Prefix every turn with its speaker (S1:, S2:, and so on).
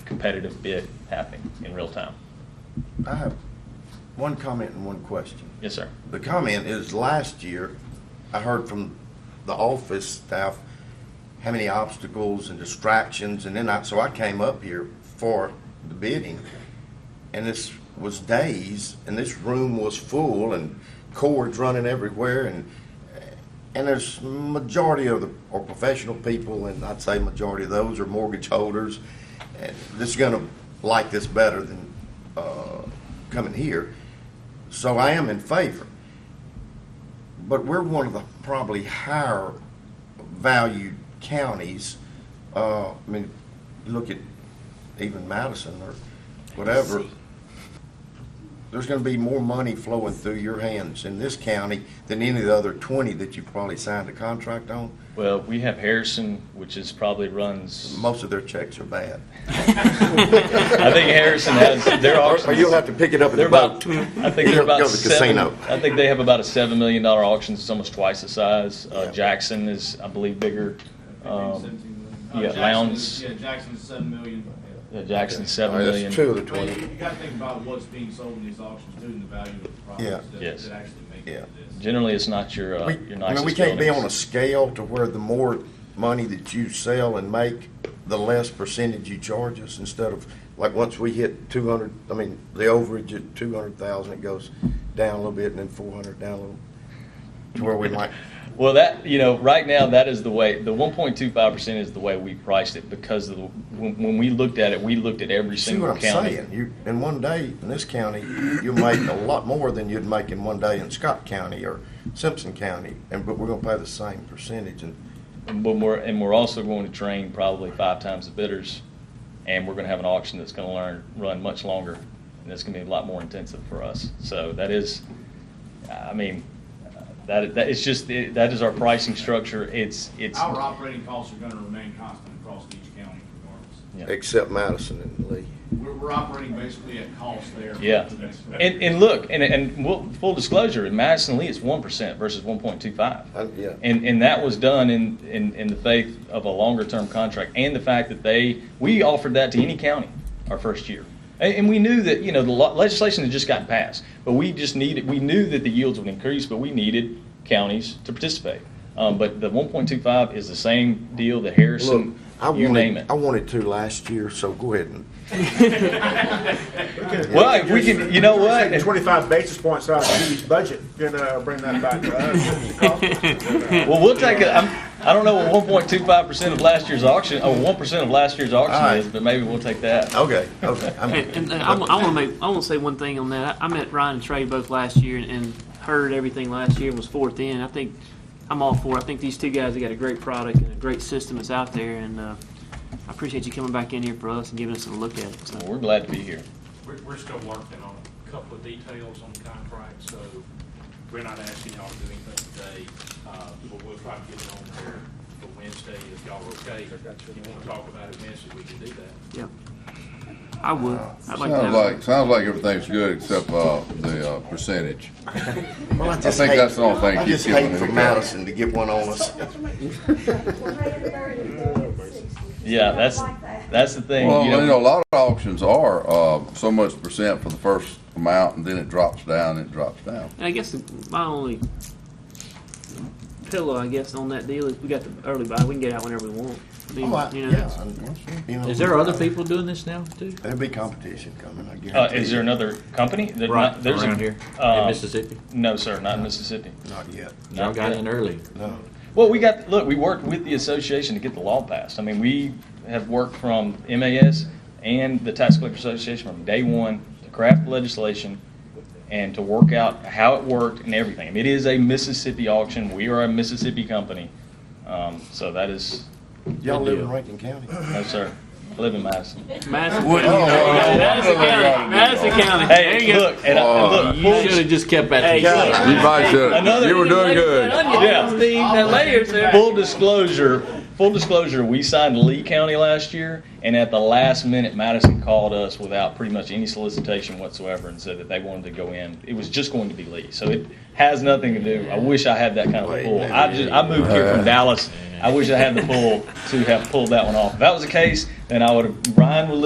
S1: competitive bid happening in real time.
S2: I have one comment and one question.
S1: Yes, sir.
S2: The comment is last year, I heard from the office staff how many obstacles and distractions, and then I, so I came up here for the bidding, and this was days, and this room was full, and cords running everywhere, and, and there's majority of the, are professional people, and I'd say majority of those are mortgage holders, and this is gonna like this better than, uh, coming here. So I am in favor. But we're one of the probably higher valued counties. Uh, I mean, look at even Madison or whatever. There's gonna be more money flowing through your hands in this county than any of the other twenty that you've probably signed a contract on.
S1: Well, we have Harrison, which is probably runs,
S2: Most of their checks are bad.
S1: I think Harrison has, their auctions.
S2: Or you'll have to pick it up in
S1: They're
S2: the
S1: about,
S2: boat.
S1: I think they're
S2: Go-
S1: about
S2: go to the
S1: seven,
S2: casino.
S1: I think they have about a seven million dollar auction, it's almost twice the size. Uh,
S2: Yeah.
S1: Jackson is, I believe, bigger. Um, yeah, Lowndes.
S3: Uh, Jackson's, yeah, Jackson's seven million.
S1: yeah, Jackson's
S2: All
S1: seven
S2: right,
S1: million.
S2: Oh, That's two of the
S3: But you,
S2: twenty.
S3: you gotta think about what's being sold in these auctions too, and the value of the
S2: Yeah.
S3: properties that,
S1: Yes.
S3: that actually make
S2: Yeah.
S3: it to this.
S1: Generally, it's not your, uh,
S2: We,
S1: your
S2: I mean,
S1: nicest
S2: we can't be on a
S1: buildings.
S2: scale to where the more money that you sell and make, the less percentage you charge us instead of, like, once we hit two hundred, I mean, the overage at two hundred thousand, it goes down a little bit and then four hundred down a little. To where we might,
S1: Well, that, you know, right now, that is the way, the one point two five percent is the way we priced it because of, the- when, when we looked at it, we looked at every
S2: see what
S1: single
S2: I'm
S1: county.
S2: saying? You, in one day, in this county, you'll make a lot more than you'd make in one day in Scott County or Simpson County, and, but we're gonna pay the same percentage and
S1: And But we're, and we're also going to train probably five times the bidders, and we're gonna have an auction that's gonna learn, run much longer, and it's gonna be a lot more intensive for us. So that is, I mean, uh, that, that, it's just, that is our pricing structure, it's, it's.
S3: Our operating costs are gonna remain constant across each county regardless.
S1: Yeah.
S2: except Madison and Lee.
S3: We're, we're operating basically at cost there. for
S1: Yeah,
S3: the next-
S1: and, and look, and, and we'll- full disclosure, in Madison Lee, it's one percent versus one point two five.
S2: Uh, yeah.
S1: And, and that was done in, in, in the faith of a longer-term contract, and the fact that they, we offered that to any county our first year. And, and we knew that, you know, the lo- legislation had just gotten passed, but we just needed, we knew that the yields would increase, but we needed counties to participate. Um, but the one point two five is the same deal that
S2: Look,
S1: Harrison,
S2: I
S1: you name
S2: wanted,
S1: it.
S2: I wanted to last year, so go ahead and,
S1: Well, if we can, you know what? If-
S4: Twenty-five basis points out of each budget, then uh, bring that back to us.
S1: Well, we'll take it. I'm, I don't know what one point two five percent of last year's auction, oh, one percent of last year's
S2: All
S1: auction
S2: right.
S1: is, but maybe we'll take that.
S2: okay, okay. I'm-
S5: And, and I, want to make, I want to say one thing on that. I, I met Ryan and Trey both last year and, and heard everything last year and was fourth in. I think I'm all for. it. I think these two guys have got a great product and a great system that's out there, and uh, I appreciate you coming back in here for us and giving us a look at it. So.
S1: Well, We're glad to be here.
S6: We're, we're still working on a couple of details on the contract, so we're not asking y'all to do anything today. Uh, but we'll try to get it on there for Wednesday if y'all are okay. If you wanna talk about it Wednesday, we can do that.
S5: Yeah, I would. I'd like to have
S7: Sounds like, sounds like everything's good except, uh, the, uh, percentage.
S2: Well, I
S7: I
S2: just
S7: think
S2: hate,
S7: that's the only thing
S2: I
S7: keeps
S2: just
S7: giving
S2: hate
S7: me
S2: for
S7: the
S2: Madison to get one on us.
S1: Yeah, that's, that's the thing,
S7: Well,
S1: you
S7: you
S1: know.
S7: know, a lot of auctions are, uh, so much percent for the first amount and then it drops down, it drops down.
S5: And I guess the- my only pillow, I guess, on that deal is we got the early buy. We can get out whenever we want. I mean,
S2: Oh, I-
S5: you know,
S2: yeah, I- you know, uh,
S8: Is there other people doing this now too?
S2: There'll be competition coming, I
S1: Uh,
S2: guarantee.
S1: is there
S2: you.
S1: another company? There's not- there's a-
S8: around here
S1: uh,
S8: in Mississippi.
S1: No, sir, not in Mississippi.
S2: Not yet,
S8: Y'all got in early.
S2: no.
S1: Well, we got, look, we worked with the association to get the law passed. I mean, we have worked from MAS and the Tax Collector Association from day one to craft legislation and to work out how it worked and everything. I mean, It is a Mississippi auction. We are a Mississippi company. Um, so that is,
S2: Y'all
S8: Good
S2: live in
S8: deal.
S2: Rankin County?
S1: no, sir. I live in Madison.
S5: Madison,
S7: Wouldn't you know?
S5: Madison County. Madison County. there
S1: Hey,
S5: you go.
S1: look, and I, and
S5: Oh,
S1: look,
S8: You should have just kept
S5: Hey,
S8: that.
S5: look.
S7: You probably
S1: Another-
S7: should, you were doing good.
S1: Yeah.
S5: Yeah. That layers there.
S1: Full disclosure, full disclosure, we signed Lee County last year, and at the last minute, Madison called us without pretty much any solicitation whatsoever and said that they wanted to go in. It was just going to be Lee, so it has nothing to do. I wish I had that kind of a pull. I just, I moved here from Dallas. I wish I had the pull to have pulled that one off. If that was the case, then I would have, Ryan would